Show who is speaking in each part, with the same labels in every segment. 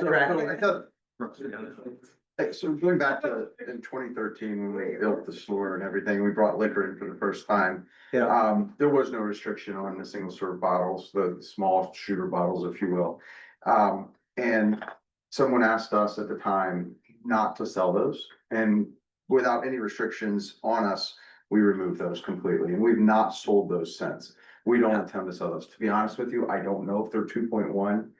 Speaker 1: So,
Speaker 2: correct.
Speaker 1: so I thought- Hey, So going back to in twenty thirteen, when we built the store and everything, we brought liquor in for the first time.
Speaker 2: Yeah.
Speaker 1: Um, there was no restriction on the single serve bottles, the small shooter bottles, if you will. Um, and someone asked us at the time not to sell those and without any restrictions on us, we removed those completely and we've not sold those since. We don't intend to sell those. To be honest with you, I don't know if they're two point one.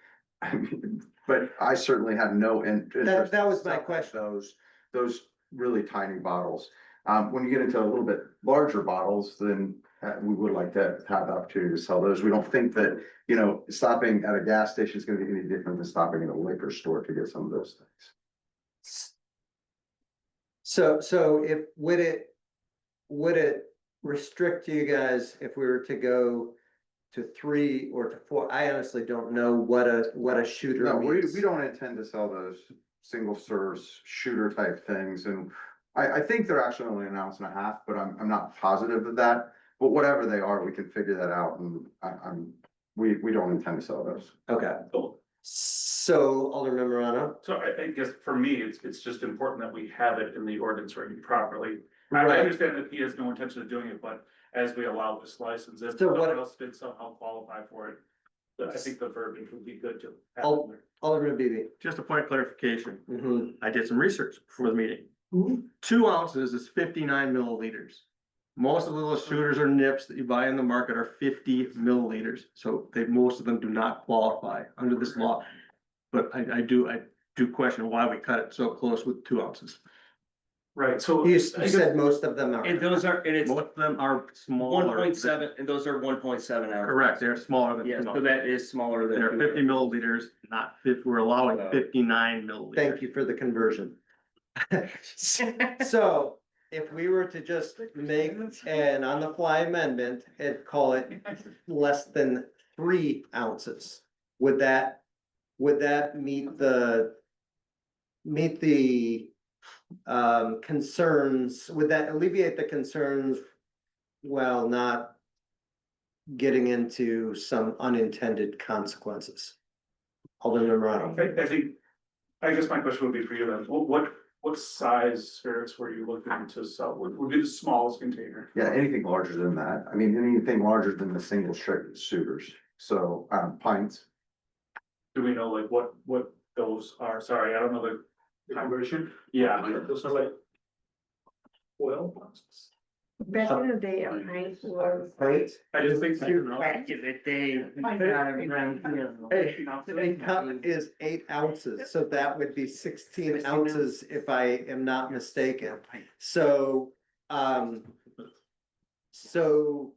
Speaker 1: But I certainly have no in-
Speaker 2: That,
Speaker 1: interest
Speaker 2: that was my
Speaker 1: selling
Speaker 2: question.
Speaker 1: Those, those really tiny bottles. Um, when you get into a little bit larger bottles, then uh, we would like to have the opportunity to sell those. We don't think that, you know, stopping at a gas station is gonna be any different than stopping at a liquor store to get some of those things.
Speaker 2: So, so if, would it, would it restrict you guys if we were to go to three or to four? I honestly don't know what a, what a shooter
Speaker 1: No, we, we
Speaker 2: means.
Speaker 1: don't intend to sell those single serves shooter type things and I, I think they're actually only an ounce and a half, but I'm, I'm not positive of that. But whatever they are, we can figure that out and I, I'm, we, we don't intend to sell those.
Speaker 2: Okay, so Alderman Morano?
Speaker 3: So I, I guess for me, it's, it's just important that we have it in the ordinance written properly. I I
Speaker 2: Right.
Speaker 3: understand that he has no intention of doing it, but as we allow this license, if
Speaker 2: So what-
Speaker 3: someone else did somehow qualify for it. But I think the verbiage would be good to. have
Speaker 2: Oh.
Speaker 3: in there.
Speaker 2: Alderman Beatty?
Speaker 4: Just a point of clarification,
Speaker 2: Mhm.
Speaker 4: I did some research before the meeting. Two ounces is fifty-nine milliliters. Most of the little shooters or nips that you buy in the market are fifty milliliters, so they, most of them do not qualify under this law. But I, I do, I do question why we cut it so close with two ounces.
Speaker 3: Right,
Speaker 2: You,
Speaker 3: so. I
Speaker 2: you
Speaker 3: guess-
Speaker 2: said most of them are.
Speaker 5: And those are, and it's
Speaker 4: Most of them are smaller.
Speaker 5: one
Speaker 4: than-
Speaker 5: point seven, and those are one point seven hours.
Speaker 4: Correct, they're smaller than.
Speaker 5: Yeah,
Speaker 4: two
Speaker 5: so
Speaker 4: ounces.
Speaker 5: that is smaller than.
Speaker 4: They're fifty milliliters, not fifty, we're allowing
Speaker 5: Uh,
Speaker 4: fifty-nine milliliters.
Speaker 2: Thank you for the conversion. So if we were to just make an on-the-fly amendment and call it less than three ounces, would that, would that meet the, meet the um, concerns, would that alleviate the concerns while not getting into some unintended consequences? Alderman Morano.
Speaker 3: I, I think, I guess my question would be for you then, what, what, what size spirits were you looking to sell? Would, would be the smallest container?
Speaker 1: Yeah, anything larger than that. I mean, anything larger than the single strip shooters. So, um, pints.
Speaker 3: Do we know like what, what those are? Sorry, I don't know the conversion. Yeah. Those are like. Oil.
Speaker 6: Back in the day, a pint was.
Speaker 2: Right?
Speaker 3: I just think.
Speaker 2: The cup is eight ounces, so that would be sixteen ounces if I am not mistaken. So, um. So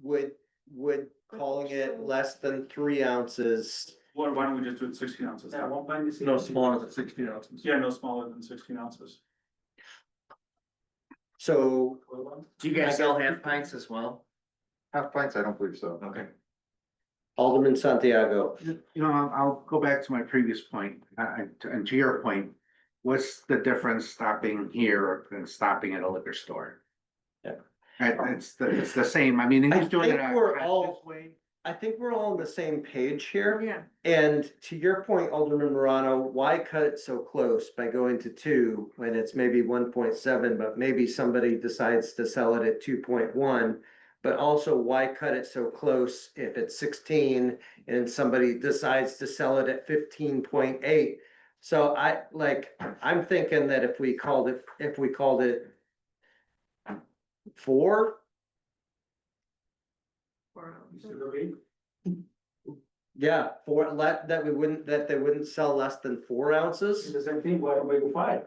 Speaker 2: would, would calling it less than three ounces,
Speaker 3: Why, why don't we just do it sixteen ounces?
Speaker 4: No smaller than sixteen ounces.
Speaker 3: Yeah, no smaller than sixteen ounces.
Speaker 2: so
Speaker 5: Do you guys all have pints as well?
Speaker 1: Half pints, I don't believe so.
Speaker 5: Okay.
Speaker 2: Alderman Santiago.
Speaker 7: You know, I'll, I'll go back to my previous point, uh, and to- and to your point, what's the difference stopping here than stopping at a liquor store?
Speaker 4: Yeah.
Speaker 7: And it's, the- it's the same, I mean, and
Speaker 2: I
Speaker 7: he's doing it.
Speaker 2: think
Speaker 7: on a
Speaker 2: we're
Speaker 7: conscious
Speaker 2: all-
Speaker 7: way.
Speaker 2: I think we're all on the same page here.
Speaker 6: Yeah.
Speaker 2: And to your point, Alderman Morano, why cut it so close by going to two when it's maybe one point seven, but maybe somebody decides to sell it at two point one? But also why cut it so close if it's sixteen and somebody decides to sell it at fifteen point eight? So I like, I'm thinking that if we called it, if we called it four, yeah, four, let, that we wouldn't, that they wouldn't sell less than four ounces.
Speaker 3: the same thing, why don't we go five?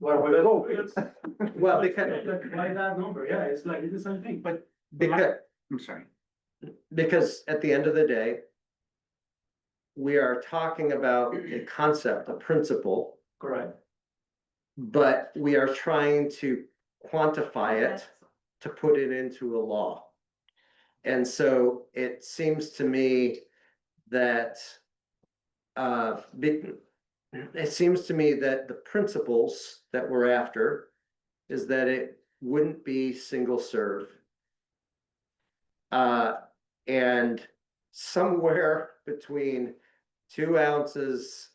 Speaker 3: Why don't we go?
Speaker 2: Well, because,
Speaker 3: Why that number? Yeah, it's like, it's the same thing, but.
Speaker 2: because,
Speaker 7: I'm sorry,
Speaker 2: because at the end of the day. We are talking about a concept, a principle,
Speaker 3: Correct.
Speaker 2: but we are trying to quantify it to put it into a law. And so it seems to me that. Uh, be- it seems to me that the principles that we're after is that it wouldn't be single serve. Uh, and somewhere between two ounces